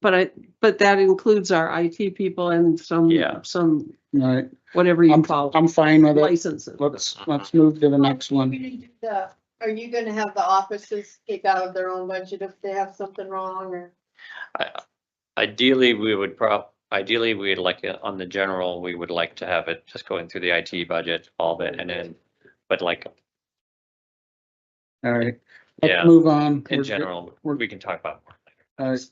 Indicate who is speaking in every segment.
Speaker 1: But I, but that includes our IT people and some,
Speaker 2: Yeah.
Speaker 1: some,
Speaker 3: All right,
Speaker 1: whatever you
Speaker 3: I'm,
Speaker 1: call it,
Speaker 3: I'm fine with it.
Speaker 1: licenses.
Speaker 3: Let's, let's move to the next
Speaker 4: You're
Speaker 3: one.
Speaker 4: gonna do the- Are you gonna have the offices take out of their own budget if they have something wrong or?
Speaker 2: Ideally, we would prob, ideally, we'd like, it on the general, we would like to have it just going through the IT budget, all of it, and then, but like,
Speaker 3: All right.
Speaker 2: Yeah.
Speaker 3: Let's move on. We're
Speaker 2: in
Speaker 3: good.
Speaker 2: general,
Speaker 3: we're-
Speaker 2: we can talk about more.
Speaker 3: All right.
Speaker 2: Um,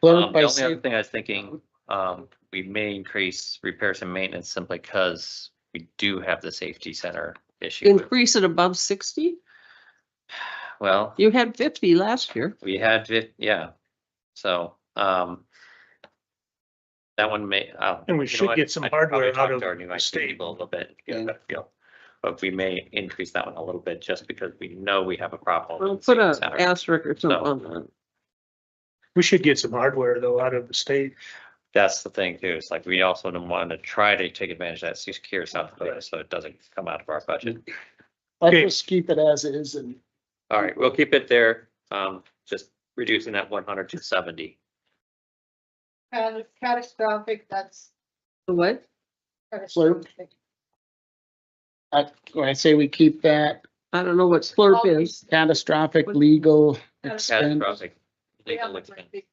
Speaker 3: Clerk
Speaker 2: The
Speaker 3: by
Speaker 2: only other
Speaker 3: safe,
Speaker 2: thing I was thinking, um, we may increase repairs and maintenance simply because we do have the safety center issue. with-
Speaker 1: Increase it above sixty?
Speaker 2: Well,
Speaker 1: You had fifty last year.
Speaker 2: we had, fif- yeah, so, um, that one may, oh.
Speaker 5: And we should get some hardware out of
Speaker 2: Our new
Speaker 5: the
Speaker 2: IT
Speaker 5: state.
Speaker 2: people a little bit,
Speaker 3: Yeah.
Speaker 2: yeah, but we may increase that one a little bit just because we know we have a problem.
Speaker 1: Well,
Speaker 2: with
Speaker 1: Put a
Speaker 2: safety center.
Speaker 1: asterisk or something on that.
Speaker 5: We should get some hardware though out of the state.
Speaker 2: That's the thing too, it's like we also don't want to try to take advantage of that secure South Dakota, so it doesn't come out of our budget.
Speaker 3: let's just keep it as is and
Speaker 2: All right, we'll keep it there, um, just reducing that one hundred to seventy.
Speaker 4: Cata- Catastrophic, that's
Speaker 1: The What?
Speaker 4: catastrophic.
Speaker 3: I, I say we keep that
Speaker 1: I don't know what slurp is.
Speaker 3: catastrophic legal expense.
Speaker 2: Catastrophic.
Speaker 4: We
Speaker 2: legal
Speaker 4: have a
Speaker 2: expense.
Speaker 4: big-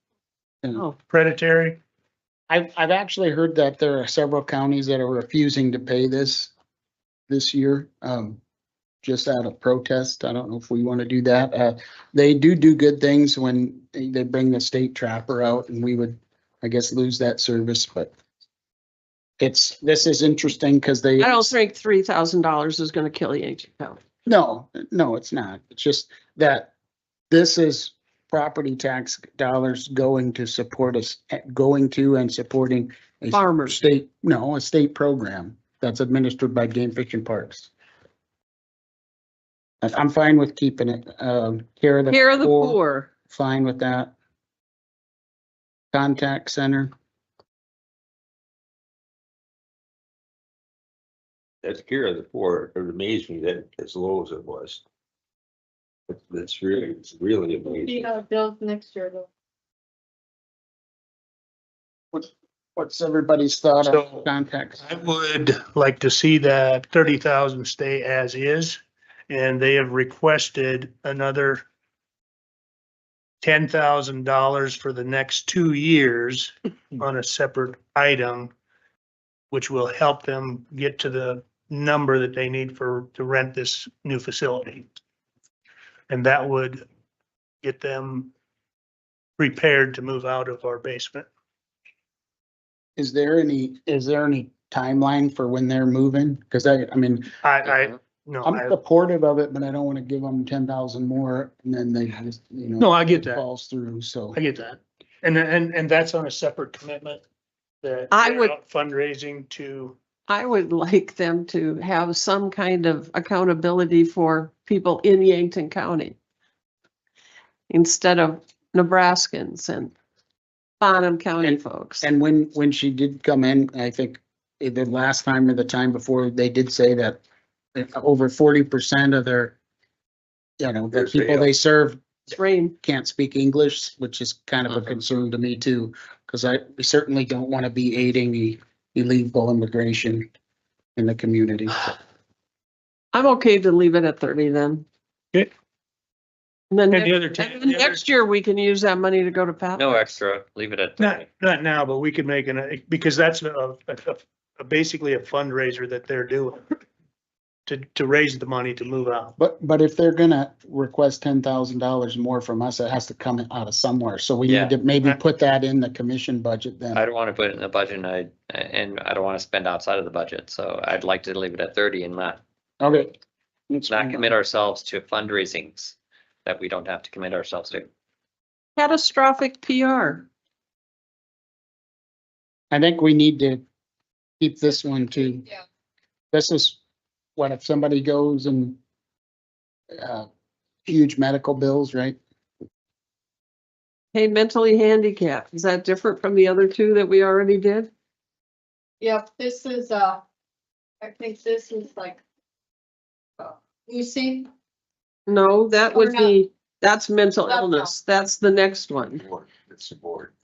Speaker 1: Oh,
Speaker 5: Predatory,
Speaker 3: I've, I've actually heard that there are several counties that are refusing to pay this, this year, um, just out of protest. I don't know if we want to do that. Uh, they do do good things when they they bring the state trapper out and we would, I guess, lose that service, but it's, this is interesting because they,
Speaker 1: I don't think three thousand dollars is gonna kill Yankton County.
Speaker 3: no, no, it's not. It's just that this is property tax dollars going to support us, eh, going to and supporting a or
Speaker 1: Farmers,
Speaker 3: state, no, a state program that's administered by Game Fish and Parks. I- I'm fine with keeping it, um, care of the.
Speaker 1: care of the poor.
Speaker 3: Fine with that. Contact center,
Speaker 6: That's Care of the Poor, it amazed me that as low as it was. That- That's really, it's really
Speaker 4: You
Speaker 6: amazing.
Speaker 4: know, bills next year though.
Speaker 3: what's everybody's thought on
Speaker 5: So-
Speaker 3: contact?
Speaker 5: I would like to see that thirty thousand stay as is. And they have requested another ten thousand dollars for the next two years on a separate item, which will help them get to the number that they need for, to rent this new facility. And that would get them prepared to move out of our basement.
Speaker 3: Is there any, is there any timeline for when they're moving? Because I, I mean,
Speaker 5: I, I, no,
Speaker 3: I'm
Speaker 5: I,
Speaker 3: supportive of it, but I don't want to give them ten thousand more and then they just, you know.
Speaker 5: no, I get that.
Speaker 3: Falls through, so.
Speaker 5: I get that. And, and, and that's on a separate commitment that.
Speaker 1: I
Speaker 5: they're
Speaker 1: would-
Speaker 5: out Fundraising to,
Speaker 1: I would like them to have some kind of accountability for people in Yankton County. Instead of Nebraskans and Bonham County
Speaker 3: And-
Speaker 1: folks.
Speaker 3: And when, when she did come in, I think the last time or the time before, they did say that over forty percent of their, you know, the
Speaker 6: Their
Speaker 3: people they serve
Speaker 1: It's rain.
Speaker 3: can't speak English, which is kind of a
Speaker 2: Mhm.
Speaker 3: concern to me too, because I we certainly don't want to be aiding the illegal immigration in the community.
Speaker 1: I'm okay to leave it at thirty then.
Speaker 5: Okay.
Speaker 1: And then,
Speaker 5: and the
Speaker 1: next-
Speaker 5: other. ten-
Speaker 1: and then
Speaker 5: the other-
Speaker 1: next year, we can use that money to go to Pat.
Speaker 2: No extra, leave it at
Speaker 5: Not,
Speaker 2: thirty.
Speaker 5: not now, but we could make an, because that's a, a- a- a- basically a fundraiser that they're doing to, to raise the money to move out.
Speaker 3: But, but if they're gonna request ten thousand dollars more from us, it has to come out of somewhere. So we
Speaker 2: Yeah.
Speaker 3: need to maybe put that in the commission budget then.
Speaker 2: I don't want to put it in the budget and I, and I don't want to spend outside of the budget, so I'd like to leave it at thirty and not,
Speaker 3: Okay. That's
Speaker 2: not
Speaker 3: fine.
Speaker 2: commit ourselves to fundraisings that we don't have to commit ourselves to.
Speaker 1: Catastrophic PR.
Speaker 3: I think we need to keep this one too.
Speaker 4: Yeah.
Speaker 3: This is what if somebody goes and uh, huge medical bills, right?
Speaker 1: Hey, mentally handicapped. Is that different from the other two that we already did?
Speaker 4: Yep, this is, uh, I think this is like. uh, You see,
Speaker 1: No, that
Speaker 4: Or
Speaker 1: would
Speaker 4: not.
Speaker 1: be, that's mental
Speaker 4: That's not.
Speaker 1: illness. That's the next one.
Speaker 6: Board, It's the board.